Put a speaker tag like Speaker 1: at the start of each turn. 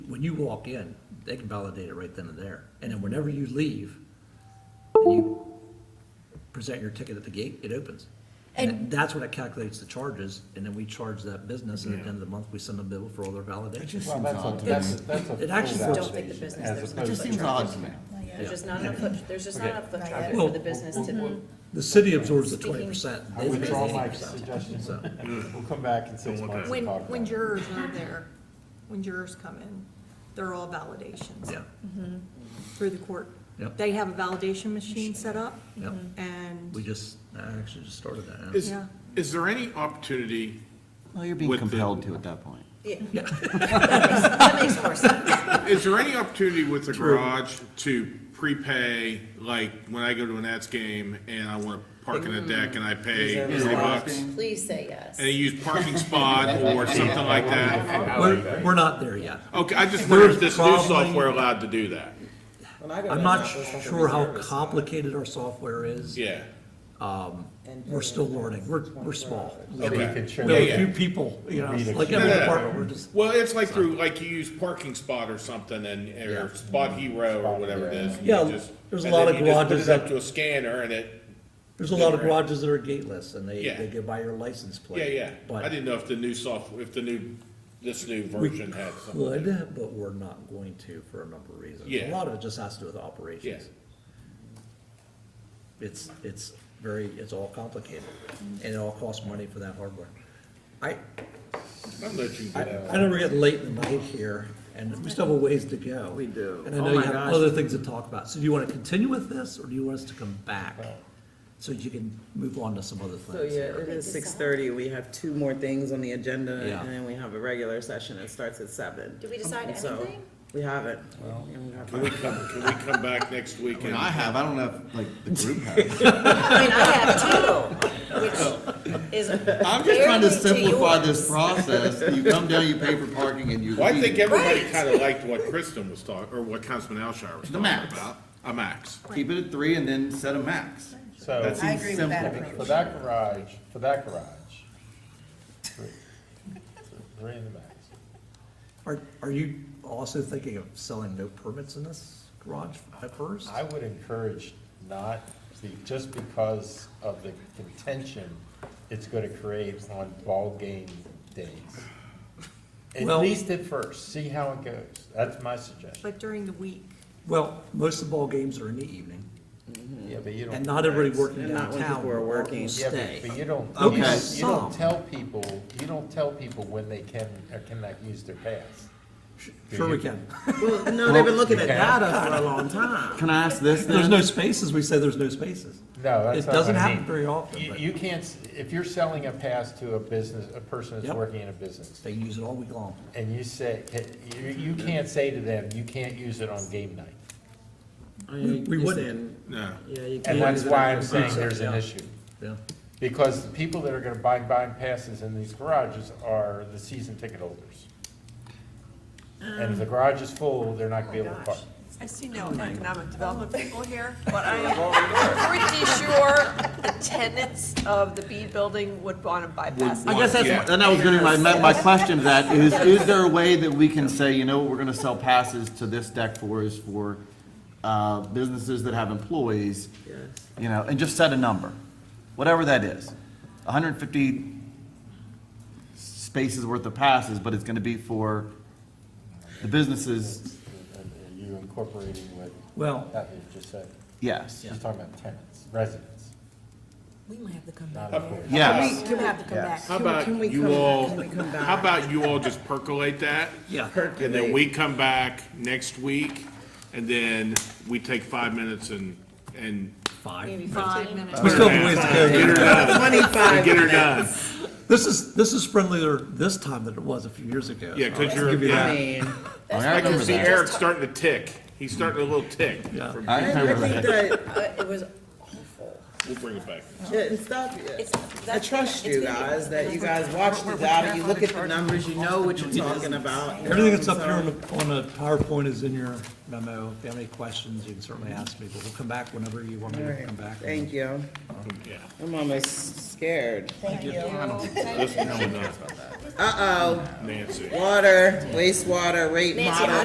Speaker 1: when you walk in, they can validate it right then and there. And then whenever you leave, and you present your ticket at the gate, it opens. And
Speaker 2: And-
Speaker 1: that's what it calculates the charges, and then we charge that business, and at the end of the month, we send a bill for all their validation.
Speaker 3: Well, that's a, that's a, that's a
Speaker 1: It actually
Speaker 3: full
Speaker 1: feels-
Speaker 4: Don't think the business,
Speaker 3: validation as
Speaker 4: there's
Speaker 3: opposed
Speaker 4: just
Speaker 3: to
Speaker 4: seems
Speaker 3: traffic.
Speaker 4: odd to me.
Speaker 1: Yeah.
Speaker 4: There's just not enough foot, there's just not
Speaker 3: Okay.
Speaker 4: enough foot
Speaker 2: Not
Speaker 4: traffic
Speaker 2: yet.
Speaker 4: for the business to.
Speaker 1: The city absorbs the twenty percent,
Speaker 3: I
Speaker 1: they pay
Speaker 3: withdraw my
Speaker 1: eighty
Speaker 3: suggestion.
Speaker 1: percent, so.
Speaker 3: We'll come back in six months
Speaker 5: When,
Speaker 3: and talk
Speaker 5: when
Speaker 3: about it.
Speaker 5: jurors are there, when jurors come in, they're all validations
Speaker 1: Yeah,
Speaker 5: through the court.
Speaker 1: Yep.
Speaker 5: They have a validation machine set up
Speaker 1: yeah, we
Speaker 5: and,
Speaker 1: just, I actually just started that. yeah.
Speaker 6: Is,
Speaker 5: Yeah.
Speaker 6: is there any opportunity,
Speaker 4: Well, you're
Speaker 6: With
Speaker 4: being
Speaker 6: the-
Speaker 4: compelled to at that point.
Speaker 2: That makes more sense.
Speaker 6: is there any opportunity with the garage to prepay, like, when I go to an Nats game and I wanna park in a deck and I pay three bucks?
Speaker 2: Please say yes.
Speaker 6: And I use parking spot or something like that?
Speaker 1: We're, we're not there yet.
Speaker 6: Okay, I just wonder if this new
Speaker 1: Probably-
Speaker 6: software allowed to do that?
Speaker 7: When I go to
Speaker 1: I'm not
Speaker 7: Annapolis, I go to
Speaker 1: sure how
Speaker 7: Reserve.
Speaker 1: complicated our software is.
Speaker 6: Yeah,
Speaker 7: And-
Speaker 1: We're still learning, we're, we're small. We
Speaker 3: Maybe you
Speaker 6: Okay.
Speaker 3: could show
Speaker 1: have a
Speaker 6: Yeah,
Speaker 1: few
Speaker 6: yeah.
Speaker 1: people, you know,
Speaker 3: Read a
Speaker 1: like
Speaker 3: few.
Speaker 1: every
Speaker 6: No, no, no.
Speaker 1: department, we're just,
Speaker 6: well, it's like through, like you use parking spot or something and, or Spot Hero or whatever it is. and you
Speaker 1: Yeah,
Speaker 6: just-
Speaker 1: there's a
Speaker 6: and then
Speaker 1: lot of
Speaker 6: you just
Speaker 1: garages
Speaker 6: Put it up
Speaker 1: that-
Speaker 6: to a scanner and it,
Speaker 1: there's a lot of garages that are gateless and they,
Speaker 6: Yeah.
Speaker 1: they go by your license
Speaker 6: yeah,
Speaker 1: plate.
Speaker 6: yeah. I
Speaker 1: But
Speaker 6: didn't know if the new software, if the new, this new version had something. to do with it.
Speaker 1: could, but we're not going to for a number of reasons. A
Speaker 6: Yeah.
Speaker 1: lot of it just has to do with operations. It's, it's very, it's all complicated and it all costs money for that hardware. I,
Speaker 6: I'll let you
Speaker 1: I
Speaker 6: get out.
Speaker 1: I know we're getting late in the night here, and we still have a ways to go. We
Speaker 4: do.
Speaker 1: And I
Speaker 3: Oh
Speaker 1: know you have other things to talk about. So do you want to continue with this, or do you want us to come back? So you can move on to some other
Speaker 8: So
Speaker 1: things
Speaker 8: yeah,
Speaker 1: here?
Speaker 8: it is six thirty, we have two more things on the agenda,
Speaker 1: Yeah.
Speaker 8: and then we have a regular session, it starts at seven.
Speaker 2: Did we decide
Speaker 8: And so,
Speaker 2: anything?
Speaker 8: We haven't. And we have to-
Speaker 6: Can we come, can we come back next week?
Speaker 4: I mean,
Speaker 6: and-
Speaker 4: I have, I don't know if, like, the group has.
Speaker 2: I mean, I have two, which is
Speaker 4: I'm just trying to
Speaker 2: barely
Speaker 4: simplify
Speaker 2: yours.
Speaker 4: this process. You come down, you pay for parking, and you
Speaker 6: Well, I think
Speaker 4: leave.
Speaker 6: everybody
Speaker 2: Right.
Speaker 6: kind of liked what Kristen was talking, or what Councilman Alshire was
Speaker 4: The
Speaker 6: talking
Speaker 4: max.
Speaker 6: about. A max.
Speaker 4: Keep it at three and then set a max.
Speaker 3: So,
Speaker 4: That seems
Speaker 2: agree with that
Speaker 4: simple.
Speaker 3: for that garage, for that garage, three, three in the max.
Speaker 1: Are, are you also thinking of selling no permits in this garage at first?
Speaker 3: I would encourage not, be- just because of the contention it's gonna create on ball game days. At
Speaker 1: Well-
Speaker 3: least at first, see how it goes. That's my suggestion.
Speaker 5: but during the week.
Speaker 1: Well, most of the ball games are in the evening,
Speaker 3: Yeah, but you don't.
Speaker 1: and not everybody working
Speaker 8: And not when
Speaker 1: downtown
Speaker 8: people are
Speaker 1: will
Speaker 8: working.
Speaker 3: Yeah, but-
Speaker 1: stay.
Speaker 3: But you don't,
Speaker 4: Okay.
Speaker 3: you don't, you
Speaker 1: Some.
Speaker 3: don't tell people, you don't tell people when they can or cannot use their pass.
Speaker 1: Sure we can.
Speaker 8: Well, no, they've been looking at
Speaker 3: Okay.
Speaker 8: data for a long time.
Speaker 4: Can I ask this then?
Speaker 1: There's no spaces, we say there's no spaces.
Speaker 3: No, that's
Speaker 1: It
Speaker 3: not
Speaker 1: doesn't
Speaker 3: what I
Speaker 1: happen
Speaker 3: mean.
Speaker 1: very often,
Speaker 3: You,
Speaker 1: but
Speaker 3: you can't, s- if you're selling a pass to a business, a person that's
Speaker 1: Yep.
Speaker 3: working in a business,
Speaker 1: they use it all week long.
Speaker 3: and you say, you, you can't say to them, you can't use it on game night.
Speaker 1: we wouldn't.
Speaker 6: No.
Speaker 8: Yeah, you can't.
Speaker 3: And that's
Speaker 8: use it
Speaker 3: why
Speaker 8: as
Speaker 3: I'm
Speaker 8: a-
Speaker 3: saying there's an
Speaker 1: Yeah.
Speaker 3: issue.
Speaker 1: Yeah.
Speaker 3: Because the people that are gonna buy, buying passes in these garages are the season ticket holders. And if the garage is full, they're not gonna be able to park.
Speaker 5: I see
Speaker 4: Oh
Speaker 5: no economic development people here,
Speaker 9: But I am pretty sure the tenants of the B building would want to bypass.
Speaker 4: I guess
Speaker 6: Yeah.
Speaker 4: that's, and I was gonna, my, my question to that is, is there a way that we can say, you know what, we're gonna sell passes to this deck for is for, uh, businesses that have employees?
Speaker 8: Yes.
Speaker 4: You know, and just set a number, whatever that is, hundred and fifty spaces worth of passes, but it's gonna be for the businesses,
Speaker 3: And are You incorporating what
Speaker 1: Well,
Speaker 3: Kathy just said,
Speaker 4: yes.
Speaker 3: she's talking about tenants, residents,
Speaker 2: We might have to come
Speaker 3: not
Speaker 2: back.
Speaker 3: employees.
Speaker 4: Yes,
Speaker 2: We have to come back.
Speaker 6: How about
Speaker 8: Can we
Speaker 6: you
Speaker 8: come-
Speaker 6: all,
Speaker 8: can we come back?
Speaker 6: how about you all just percolate that?
Speaker 1: yeah.
Speaker 6: And then we come back next week, and then we take five minutes and, and
Speaker 1: Five.
Speaker 5: five minutes.
Speaker 1: We still have a ways to go.
Speaker 6: get her done,
Speaker 8: Twenty-five
Speaker 6: get her
Speaker 8: minutes.
Speaker 6: done.
Speaker 1: This is, this is friendlier this time than it was a few years ago.
Speaker 6: Yeah,
Speaker 1: so I'll
Speaker 6: because you're,
Speaker 1: give you
Speaker 6: yeah.
Speaker 1: that.
Speaker 8: I mean,
Speaker 4: I
Speaker 6: I can
Speaker 4: remember
Speaker 6: see
Speaker 4: that.
Speaker 6: Eric starting to tick. He's starting a little tick.
Speaker 1: Yeah.
Speaker 6: From-
Speaker 4: I
Speaker 8: I
Speaker 4: remember that.
Speaker 8: think that, uh, it was awful.
Speaker 6: We'll bring it back.
Speaker 8: Yeah, and stop.
Speaker 2: It's-
Speaker 8: I
Speaker 2: that's-
Speaker 8: trust
Speaker 2: it's
Speaker 8: you
Speaker 2: gonna be-
Speaker 8: guys, that you guys watch the data, you look at the numbers, you know what you're talking about. you know,
Speaker 1: Everything that's up
Speaker 8: so-
Speaker 1: here on the, on the PowerPoint is in your memo. If you have any questions, you can certainly ask me, but we'll come back whenever you want me to come back.
Speaker 8: Thank you.
Speaker 6: Yeah.
Speaker 8: I'm almost scared.
Speaker 2: Thank you.
Speaker 6: This is
Speaker 8: Uh-oh,
Speaker 6: Nancy.
Speaker 8: water, wastewater, rate
Speaker 2: Nancy,
Speaker 8: model.